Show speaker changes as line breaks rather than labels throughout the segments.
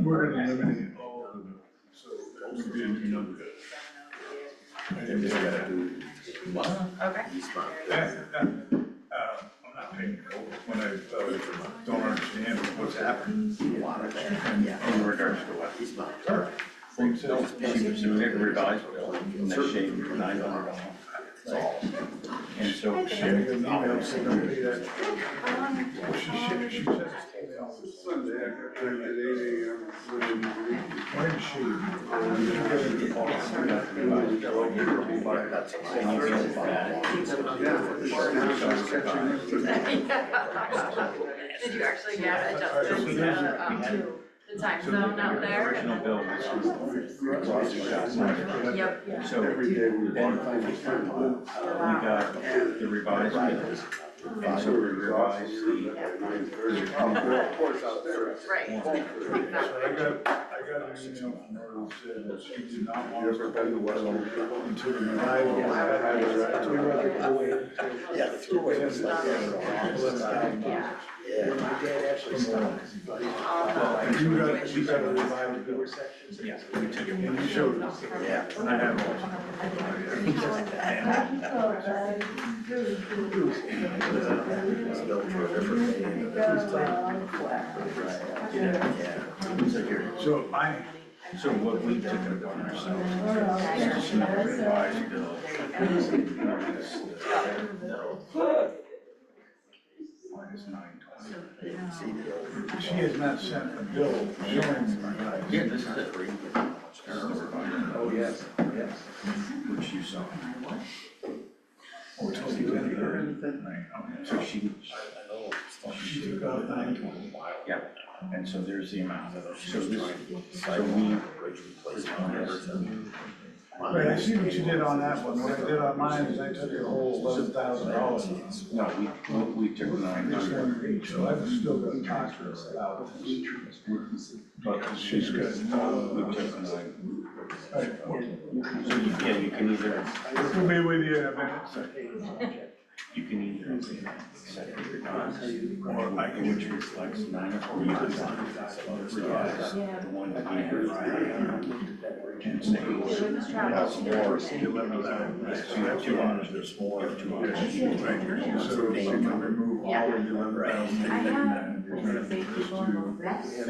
We're gonna eliminate all of them, so that we didn't do number. I
They're
didn't
just
say
gonna
that.
do month,
Okay.
each month.
That, that, uh, I'm not paying it over when I, uh, don't understand what's happening.
Water there,
And
yeah.
in regards to what?
Each month.
Same sales.
Everybody's bill, and they shave nine hundred dollars. And so
She had an email saying don't pay that. She, she, she says it's paid off.
Sunday, I got time at eight AM, Sunday morning.
Why did she? Well,
That's a lot.
Yeah, I'm catching up to-
Did you actually get adjusted to, um, the time
So the
zone out there?
original bill was-
Yep,
So we
Every day we walk by the front
got the revised bill, and so we revised the,
Of course, out there.
right.
So I got, I got an email from her that said that she did not
You
want
ever
to
been to Western?
until the arrival.
Yeah, the throughway was like that.
Yeah.
Yeah.
All
You got, you got a revival bill.
yeah, we took it.
And you showed us.
Yeah.
And I had one.
It was built for a different day and a different time. Yeah. So you're-
So I,
So what we took it upon ourselves is to submit a revised bill.
No,
Minus nine twenty.
they didn't see the old.
she has not sent a bill showing my guys.
Here, this is it. Oh, yes, yes. Which you saw. Oh,
Or told you that or anything.
So she,
She took out nine twenty.
yeah, and so there's the amount. So this, so we,
Bridge replacement.
Right, I see what you did on that one. What I did on mine is I took your whole eleven thousand dollars.
no, we, we we took nine
This
hundred.
one each, so I've still got contracts about this.
But
She's
she's
got,
good.
uh,
We took nine.
right, we'll
So you, yeah, you can either,
we'll be with you in a minute.
you can either set it or not,
Or I
or
can-
which reflects nine or you can revise the one that I had. And say,
That's
so you have two hundred, there's four, you have two hundred.
So she can remove all of the eleven thousand.
I
And you're gonna
Safety
just
for
do,
both,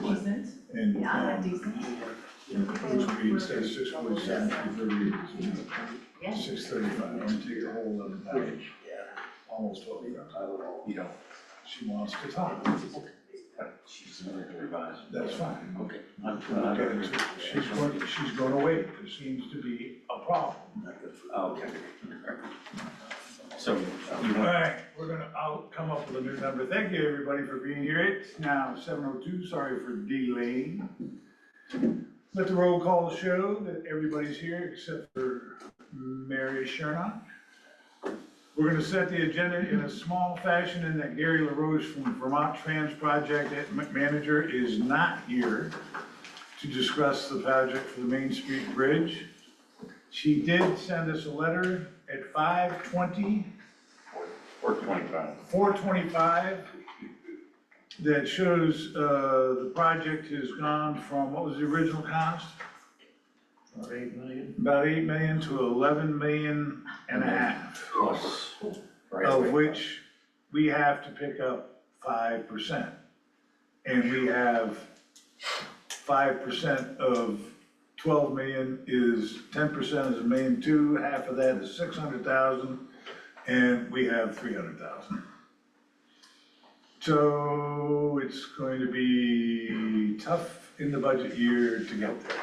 so decent,
and,
yeah,
um,
decent.
which means that's six point seven,
Yeah.
thirty, six thirty-five. I'm gonna take your whole eleven thousand, almost twelve thousand.
You don't,
She wants to talk.
she's going to revise.
That's fine.
Okay. I'm
Okay,
trying to.
She's going, she's gonna wait. There seems to be a problem.
Oh, Okay. So you
All
want
right, we're gonna, I'll come up with a new number. Thank you, everybody, for being here. It's now seven oh two, sorry for delaying. Let the roll call show that everybody's here except for Mary Shernock. We're gonna set the agenda in a small fashion in that Gary LaRoche from Vermont Trans Project Manager is not here to discuss the project for the Main Street Bridge. She did send us a letter at five twenty
four twenty-five?
four twenty-five that shows, uh, the project has gone from, what was the original cost?
About eight million.
About eight million to eleven million and a half,
Plus.
of which we have to pick up five percent. And we have five percent of twelve million is, ten percent is a million two, half of that is six hundred thousand, and we have three hundred thousand. So it's going to be tough in the budget year to get there.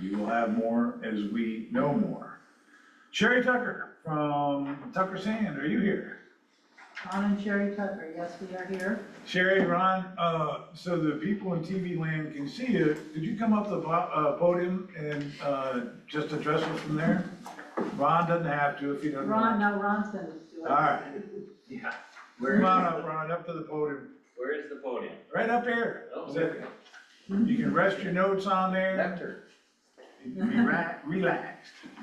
You will have more as we know more. Sherry Tucker from Tucker Sand, are you here?
Ron and Sherry Tucker, yes, we are here.
Sherry, Ron, uh, so the people in TV land can see you, could you come up to the po- uh, podium and, uh, just address us from there? Ron doesn't have to if he doesn't want.
Ron, now Ron's gonna do it.
All right,
Yeah. Where is,
come on
the-
up, Ron, up to the podium,
where is the podium?
right up here.
Oh.
Sit. You can rest your notes on there,
Nectar.
be ra- relaxed.